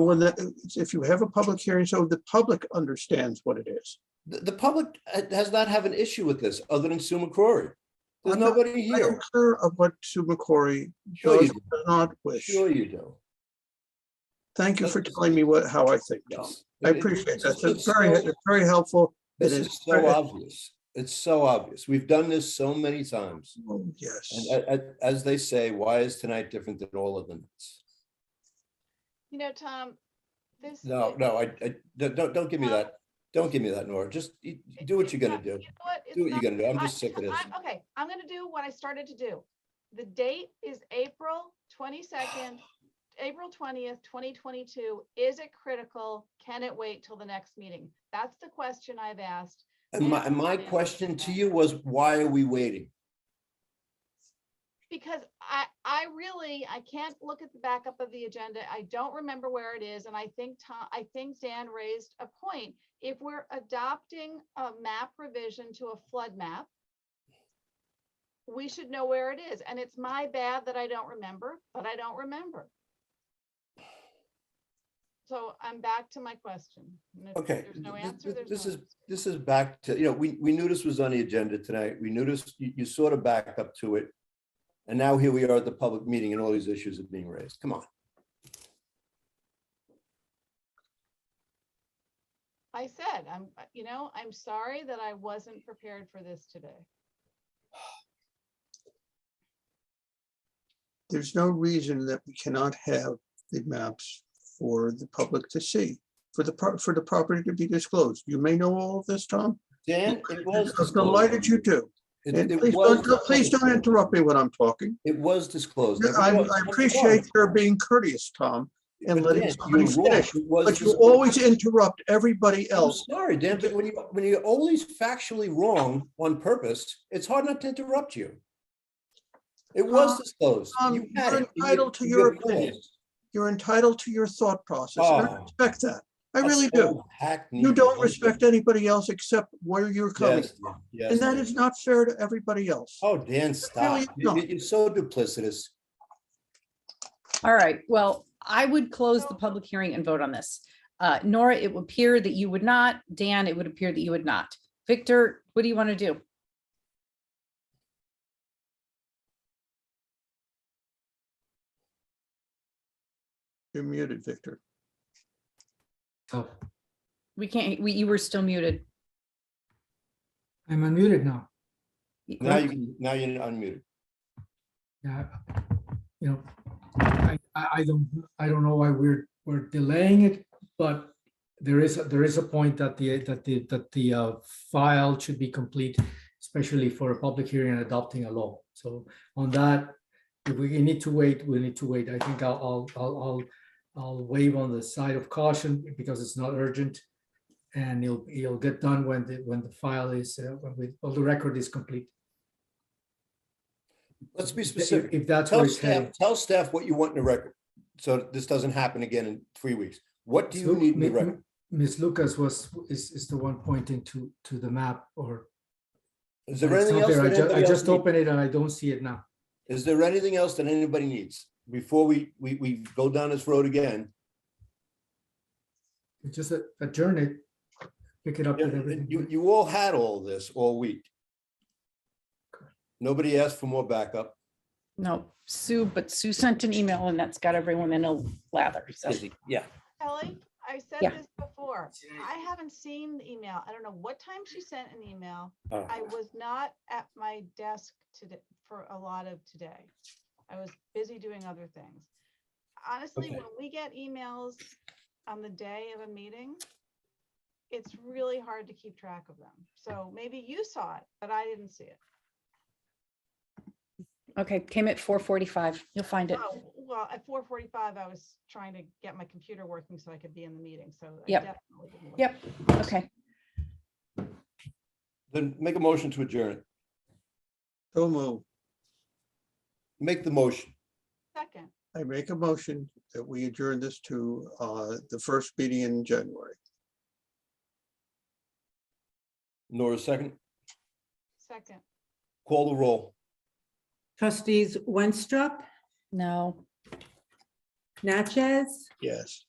when the, if you have a public hearing, so the public understands what it is. The, the public ha- does not have an issue with this other than Sue McCrory. There's I'm not- nobody I here. don't care of what Sue McCory Sure does you or do. does not wish. Sure you do. Thank you for telling me what, how I think, Tom. Yes. I It- it- appreciate that. it's- That's it's very, so- it's very helpful. This it is is so very- obvious. It's so obvious. We've done this so many times. Oh, Yes. And uh, a- a- as they say, why is tonight different than all of them? You know, Tom, this. No, it- no, I, I, don't, don't don't give me No. that. Don't give me that, Nora. Just you- you do what it's you're gonna not- you do. know what? It's Do what you're not- gonna do. I'm I- just sick of this. I- Okay, I'm gonna do what I started to do. The date is April twenty-second, April twentieth, twenty twenty-two. Is it critical? Can it wait till the next meeting? That's the question I've asked. And my, and my question to you was, why are we waiting? because I, I really, I can't look at the backup of the agenda. I don't remember where it is. And I think Tom, I think Dan raised a point. If we're adopting a map revision to a flood map, we should know where it is. And it's my bad that I don't remember, but I don't remember. So I'm back to my question. And if Okay, There's no th- th- answer. th- There's this no is- answer. This is back to, you know, we, we knew this was on the agenda tonight. We knew this, you, you sort of back up to it. And now here we are at the public meeting and all these issues are being raised. Come on. I said, I'm, you know, I'm sorry that I wasn't prepared for this today. There's no reason that we cannot have the maps for the public to see, for the, pro- for the property to be disclosed. You may know all of this, Tom. Dan, it was. I'm delighted you do. It- And it please was don't, please don't disclosed. interrupt me when I'm talking. It was disclosed. I, Everyone- I appreciate your being courteous, Tom, and But letting Dan, somebody you're wrong. finish, It was but you disclosed. always interrupt everybody I'm else. sorry, Dan, but when you, when you're always factually wrong on purpose, it's hard not to interrupt you. It was Tom, disclosed. Tom, You had you're it. You- Uh, entitled to you your had plans. opinion. You're entitled to your thought process. and I Oh. respect that. I That's really so do. hackneyed. You don't respect anybody else except where you're coming. Yes, from. yes, And that Dan. is not fair to everybody else. Oh, Dan, stop. you You- don't. You're so duplicitous. All right, well, I would close the So- public hearing and vote on this. Uh, Nora, it would appear that you would not. Dan, it would appear that you would not. Victor, what do you want to do? You're muted, Victor. Oh, We can't, we, you were still muted. I'm unmuted now. Now you, can- now you're unmuted. Yeah, you know, I, I, I don't, I don't know why we're, we're delaying it, but there is, a- there is a point that the, that the, that the uh, file should be complete, especially for a public hearing and adopting a law. So on that, if we need to wait, we need to wait. I think I'll, I'll, I'll, I'll, I'll wave on the side of caution because it's not urgent. And it'll, it'll get done when the, when the file is, uh, when we, all the record is complete. Let's be If- specific. If that's where Tell it's headed. staff, tell staff what you want in the record. So this doesn't happen again in three weeks. What do you So need in the Mi- record? Ms. Lucas was, is, is the one pointing to, to the map or. Is there it's anything not else? there. I that ju- anybody I else just needs? opened it and I don't see it now. Is there anything else that anybody needs before we, we, we go down this road again? We Just a- adjourn it, pick it up with You, everything. you all had all this all week. Nobody asked for more backup. No, Sue, but Sue sent an email and that's got everyone in a lather. So Yeah. Kelly, I said Yeah. this before. I haven't seen the email. I don't know what time she sent an email. I was not at my desk today for a lot of today. I was busy doing other things. Honestly, Okay. when we get emails on the day of a meeting, it's really hard to keep track of them. So maybe you saw it, but I didn't see it. Okay, came at four forty-five. You'll find it. Oh, well, at four forty-five, I was trying to get my computer working so I could be in the meeting, so. I Yep. definitely didn't look. Yep. Okay, Then make a motion to adjourn. it. So move. Make the motion. Second. I make a motion that we adjourn this to uh, the first meeting in January. Nora, second. Second, Call the roll. Trustees Winstrup, no. Natchez, Yes.